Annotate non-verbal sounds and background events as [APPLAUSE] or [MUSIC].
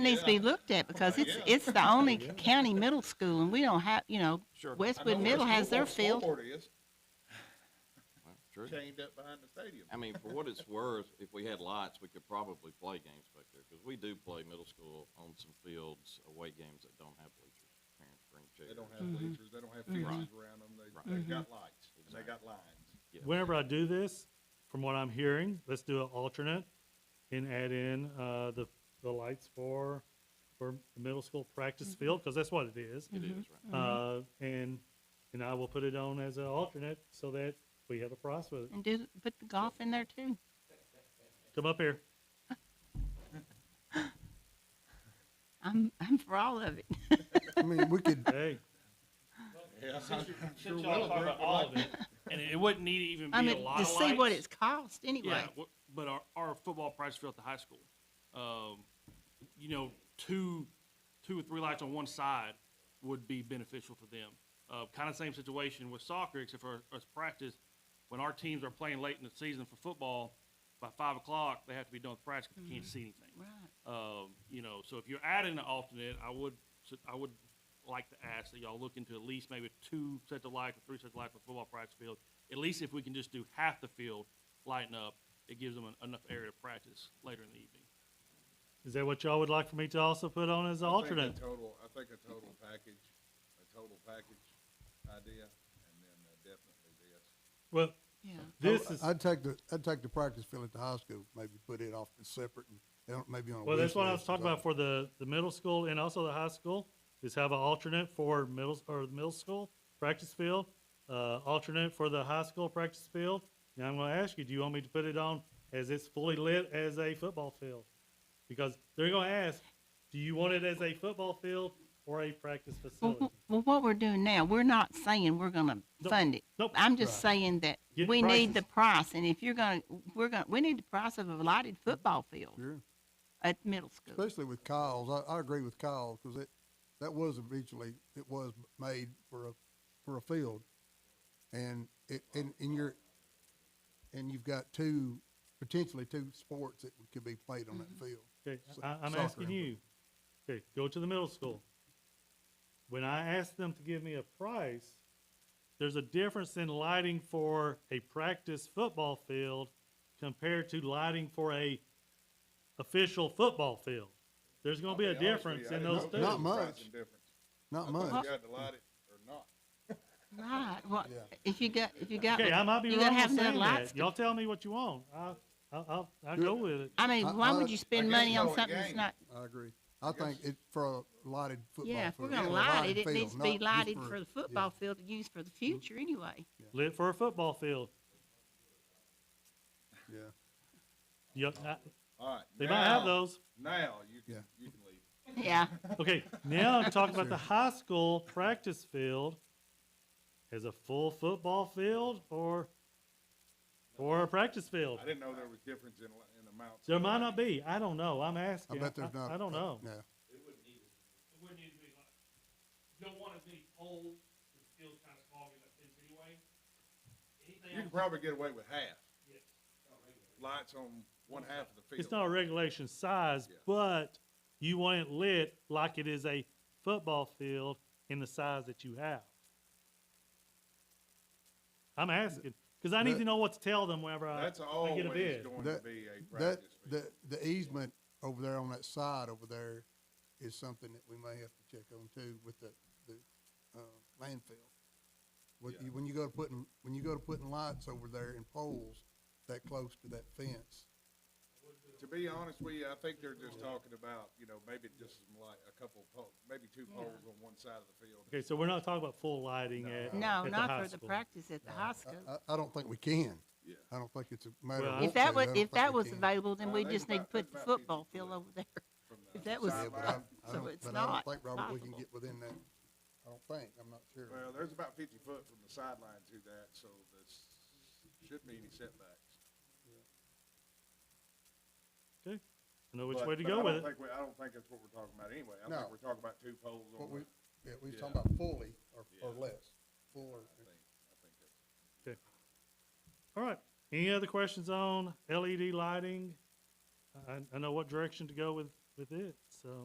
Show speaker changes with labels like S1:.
S1: needs to be looked at because it's, it's the only county middle school and we don't have, you know,
S2: Sure. I know
S1: Westwood
S2: where
S1: Middle
S2: the
S1: has
S2: school
S1: their
S2: board-
S1: field.
S2: School board is
S3: Well, True.
S2: chained up behind the stadium.
S3: I mean, for what it's worth, if we had lights, we could probably play games back there, because we do play middle school on some fields, away games that don't have bleachers. Parents bring
S2: They
S3: chairs.
S2: don't have
S1: Mhm.
S4: Mm-hmm.
S2: bleachers, they don't have
S1: Mhm.
S2: fences around them,
S3: Right.
S2: they, they've got lights, and they got lines.
S3: Yeah.
S4: Whenever I do this, from what I'm hearing, let's do an alternate and add in, uh, the, the lights for, for the middle school practice field, cause that's what it is.
S3: Mm-hmm. It is, Mm-hmm. right?
S4: Uh, and, and I will put it on as an alternate so that we have a price with it.
S1: and do, put the golf in there too.
S4: Come up here.
S1: I'm, I'm for all of it.
S5: I mean, we could,
S4: Hey,
S2: [LAUGHS] Yeah, I'm I'm sure
S6: Since y'all
S2: Willowbrook
S6: talking
S2: would
S6: about all
S2: like
S6: of it, and it wouldn't need to even
S1: I
S6: be a
S1: mean,
S6: lot
S1: to
S6: of
S1: see what
S6: lights.
S1: it's cost anyway.
S6: Yeah, wh- but our, our football practice field at the high school, um, you know, two, two or three lights on one side would be beneficial for them. Uh, kind of same situation with soccer, except for us practice. When our teams are playing late in the season for football, by five o'clock they have to be done with practice. 'cause
S1: Mm-hmm.
S6: You can't see anything.
S1: Right.
S6: Um, you know, so if you're adding an alternate, I would, su- I would like to ask that y'all look into at least maybe two sets of lights or three sets of lights for football practice field. At least if we can just do half the field lighting up, it gives them en- enough area to practice later in the evening.
S4: is that what y'all would like for me to also put on as an
S2: I think a
S4: alternate?
S2: Total, I think a total package, a total package idea, and then uh, definitely this.
S4: Well,
S1: Yeah.
S4: this
S3: Oh,
S4: is,
S5: I'd take the, I'd take the practice field at the high school, maybe put it off as separate and, you know, maybe on a.
S4: well, that's
S5: wish
S4: what I
S5: list
S4: was
S5: or
S4: talking about
S5: something.
S4: for the, the middle school and also the high school, is have an alternate for middle, or the middle school practice field, uh, alternate for the high school practice field. Now, I'm gonna ask you, do you want me to put it on as it's fully lit as a football field? Because they're gonna ask, do you want it as a football field or a practice
S1: Well,
S4: facility?
S1: wh- well, what we're doing now, we're not saying we're gonna
S4: No.
S1: fund it.
S4: Nope.
S1: I'm just saying that
S4: Get
S1: we need the
S4: prices.
S1: price and if you're gonna, we're gonna, we need the price of a lighted football field
S5: Sure.
S1: at middle school.
S5: Especially with Kyle's, I, I agree with Kyle, cause it, that was eventually, it was made for a, for a field. And it, and, and you're, and you've got two, potentially two sports that could be played on
S1: Mm-hmm.
S5: that field.
S4: Okay,
S5: So-
S4: I, I'm
S5: soccer
S4: asking
S5: and
S4: you, okay, go to the middle school. When I ask them to give me a price, there's a difference in lighting for a practice football field compared to lighting for a official football field. There's gonna be a
S2: I'll honest with you,
S4: difference
S2: I
S4: in
S2: didn't
S4: those
S2: know
S4: two.
S2: there was a
S5: Not
S2: price
S5: much.
S2: and difference. I
S5: Not
S2: thought
S5: much.
S2: You had to light it or not.
S1: Right, well,
S5: Yeah.
S1: if you got, if you got.
S4: Okay, I might be
S1: you
S4: wrong
S1: gotta have
S4: on
S1: the
S4: saying
S1: lights
S4: that.
S1: to-
S4: Y'all tell me what you want. I, I, I'll, I'll
S5: Do
S4: go
S5: it.
S4: with it.
S1: I mean,
S5: I-
S1: why
S5: I-
S1: would you spend
S2: guess
S1: money on
S2: no
S1: something that's
S2: game.
S1: not,
S5: I agree. I think
S2: guess-
S5: it, for a lighted football.
S1: yeah, if we're
S5: field,
S1: gonna
S5: or a
S1: light it,
S5: lighted
S1: it
S5: field,
S1: needs to
S5: not
S1: be
S5: just
S1: lighted
S5: a-
S1: for the
S5: yeah.
S1: football field to use for the future
S4: [LAUGHS]
S1: anyway.
S4: Lit for a football field.
S5: Yeah,
S4: Yep, I-
S2: All right.
S4: they might have
S2: now-
S4: those.
S2: Now, you
S5: Yeah.
S2: can, you can leave.
S1: Yeah,
S4: Okay, now I'm talking about the high school practice field as a full football field or or a practice field.
S2: I didn't know there was difference in, li- in amounts.
S4: There might not be. I don't know. I'm asking.
S5: I bet there's
S4: I-
S5: not.
S4: I don't know.
S5: Yeah,
S6: It wouldn't need to be like, you don't want it to be old, the field's kind of small, you got fence anyway. Anything
S2: You can
S6: else-
S2: probably get away with half.
S6: Yes.
S2: Lights on one half of the field.
S4: It's not a regulation size,
S2: Yeah.
S4: but you want it lit like it is a football field in the size that you have. I'm asking because I need to
S5: That-
S4: know what to tell them whenever I,
S2: That's
S4: I
S2: always
S4: get a bid.
S2: going to
S5: That-
S2: be a
S5: that,
S2: practice field.
S5: the, the easement over there on that side over there is something that we may have to check on too with the, the, uh, landfill. When
S2: Yeah.
S5: you, when you go to putting, when you go to putting lights over there and poles that close to that fence,
S2: To be honest with you, I think they're just talking about, you know, maybe just some light, a couple poles, maybe two poles on one side of the field.
S4: Okay, so we're not talking about full lighting at
S1: no,
S4: at
S1: not
S4: high
S1: for the
S4: school.
S1: practice at the high school.
S5: I, I, I don't think we can.
S2: Yeah.
S5: I don't think it's a matter
S4: Well, I-
S5: of.
S1: If
S5: want
S1: that
S5: to,
S1: was,
S5: I don't
S1: if that
S5: think we
S1: was
S5: can.
S1: available, then
S2: Uh,
S1: we
S2: there's
S1: just need to
S2: about-
S1: put
S2: there's
S1: the
S2: about
S1: football
S2: 50
S1: field over there.
S2: from the
S1: If that was-
S5: Yeah, but I-
S2: sideline.
S5: I
S1: so
S5: don't-
S1: it's
S5: but I don't
S1: not
S5: think, Robert, we can
S1: possible.
S5: get within that. I don't think, I'm not sure.
S2: Well, there's about fifty foot from the sideline to that, so this shouldn't be any setbacks.
S4: Okay, I know which
S2: But-
S4: way to
S2: but
S4: go
S2: I
S4: with
S2: don't
S4: it.
S2: think we- I don't think that's what we're talking about anyway. I
S5: No.
S2: think we're talking about two poles
S5: What
S2: on
S5: we,
S2: one.
S5: yeah, we was
S2: Yeah.
S5: talking about fully or, or
S2: Yeah.
S5: less, full
S2: I
S5: or.
S2: think, I think that's.
S4: All right. Any other E questions on LED lighting? I, I know what direction to go with, with it.